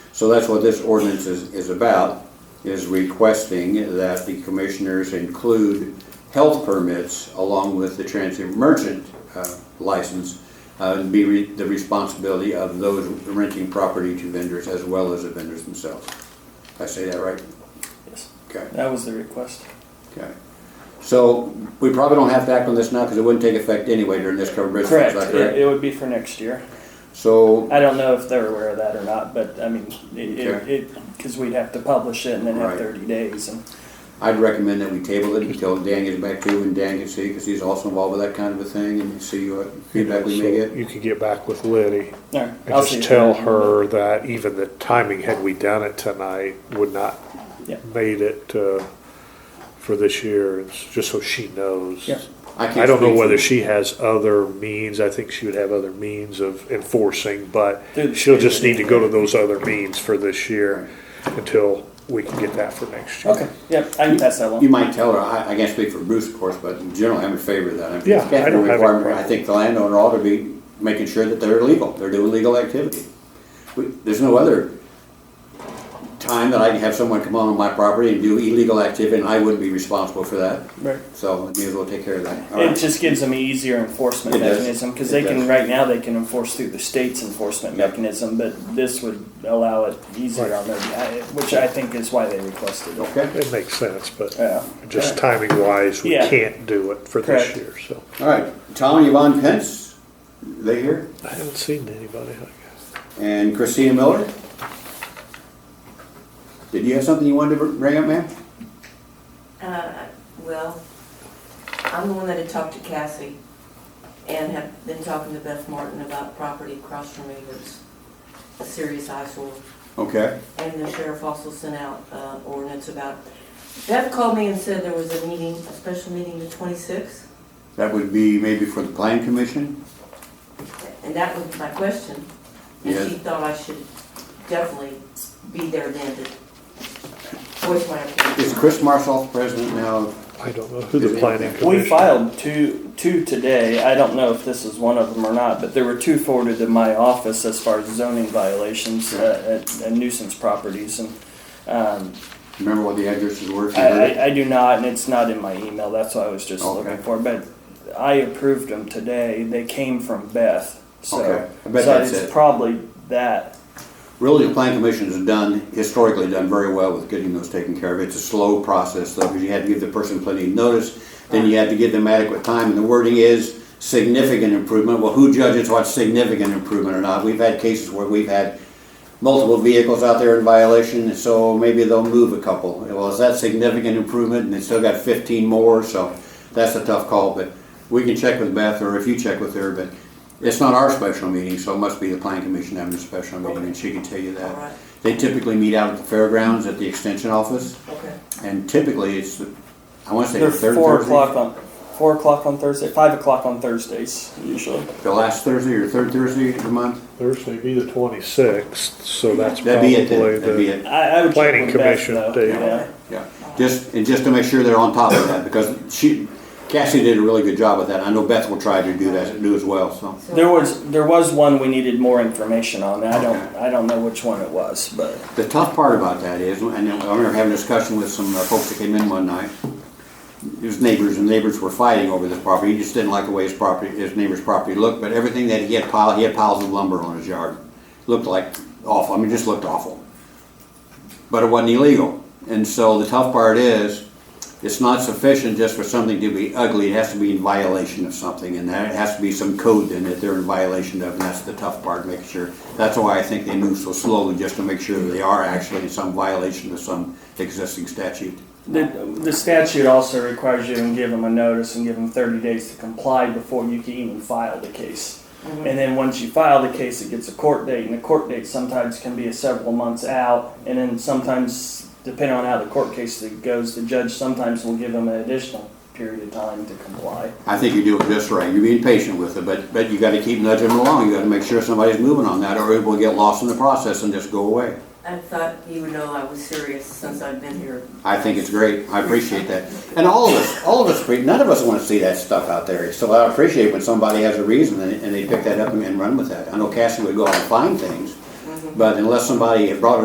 So that's what this ordinance is, is about, is requesting that the commissioners include health permits along with the transit merchant uh, license, uh, and be re- the responsibility of those renting property to vendors as well as the vendors themselves. Did I say that right? Yes. Okay. That was the request. Okay. So we probably don't have to act on this now because it wouldn't take effect anyway during this covered bridge. Correct. Is that It, it would be for next year. So, I don't know if they're aware of that or not, but I mean, it, it, Okay. it, cause we'd have to publish it and then have Right. thirty days and, I'd recommend that we table it until Dan gets back to you and Dan can see, because he's also involved with that kind of a thing and see what feedback we may So get. You could get back with Liddy all right. and I'll see if- just tell her that even the timing, had we done it tonight, would not Yeah. made it, uh, for this year, It's just so she knows. Yeah. can't I don't know speak for- whether she has other means, I think she would have other means of enforcing, but Through the she'll just state. need to go to those other means for this year until we can get that for next year. Okay, yep, I can pass that You along. might tell her, I, I can't speak for Bruce, of course, but generally I'm in favor of that. I'm- Yeah, I don't have any requirement. I problem. think the landowner ought to be making sure that they're legal, they're doing legal activity. We- There's no other time that I can have someone come on my property and do illegal activity and I wouldn't be responsible for that. Right. So may as well take care of that. All It right. just gives them an easier enforcement It does. mechanism, cause It they does. can, right now, they can enforce through the state's enforcement Yep. mechanism, but this would allow it easier Right. on their, I- which I think is why they requested it. Okay, It makes sense, but Yeah. just timing wise, we Uh, Yeah. can't do it for this Correct. year, so. all right. Tom and Yvonne Pence, they here? I haven't seen anybody, I guess. And Christina Miller? Did you have something you wanted to bring up, ma'am? Uh, Well, I'm the one that had talked to Cassie and have been talking to Beth Martin about property across from me that's a serious eyesore. Okay, And the sheriff also sent out uh, ordinance about, Beth called me and said there was a meeting, a special meeting the 26th. that would be maybe for the plan commission? And that was my question. And she Yes. thought I should definitely be there then to voice my Is opinion. Chris Marshall president now? I don't know who the planning commission. We filed two, two today. I don't know if this is one of them or not, but there were two forwarded to my office as far as zoning violations uh, and and nuisance properties. And um, Remember what the addresses were? if you I, heard it? I, I do not, and it's not in my email. That's what I was just Okay. looking for. But I approved them today. They came from Beth. So, Okay. I bet so that's it's it. probably that. Really, the plan commission has done, historically done very well with getting those taken care of. It's a slow process though, because you had to give the person plenty of notice, then you had to give them adequate time, and the wording is significant improvement. Well, who judges what's significant improvement or not? We've had cases where we've had multiple vehicles out there in violation, so maybe they'll move a couple. Well, is that significant improvement? And they still got fifteen more, so that's a tough call, but we can check with Beth, or if you check with her, but it's not our special meeting, so it must be the planning commission having a special meeting, and she can tell you All that. right. They typically meet out at the fairgrounds at the extension office, Okay. and typically it's, the- I wanna say They're the third four o'clock Thursday. on four o'clock on Thursday, five o'clock on Thursdays usually. The last Thursday or third Thursday of the month, Thursday be the twenty-sixth, so that's that'd be probably it, then. that'd be the. it. I, I would check Planning with Beth, commission though. day. Yeah. Yeah, just, and just to make sure they're on top of that, because she, Cassie did a really good job with that, I know Beth will try to do that, do as well, so. So- There was there was one we needed more information on. I don't I don't know which one it was, but The tough part about that is, and I remember having a discussion with some uh, folks that came in one night, it was neighbors, and neighbors were fighting over this property, he just didn't like the way his property, his neighbor's property looked, but everything that he had piled, he had piles of lumber on his yard, looked like awful, I mean, just looked awful. But it wasn't illegal, and so the tough part is, it's not sufficient just for something to be ugly, it has to be in violation of something, and that it has to be some code then that they're in violation of, and that's the tough part, making sure. That's why I think they move so slowly, just to make sure that they are actually in some violation of some existing statute. the, the statute also requires you to give them a notice and give them 30 days to comply before you can even file the case. And then once you file the case, it gets a court date, and the court date sometimes can be a several months out, and then sometimes, depending on how the court case goes, the judge sometimes will give them an additional period of time to comply. I think you do it just right, you're being patient with it, but, but you gotta keep nudging them along, you gotta make sure somebody's moving on that, or it will get lost in the process and just go away. I thought you would know I was serious since I've been here. I think it's great. I appreciate that. And all of us, all of us, none of us want to see that stuff out there. So I appreciate when somebody has a reason and, and they pick that up and, and run with that. I know Cassie would go out and find things, but unless somebody had brought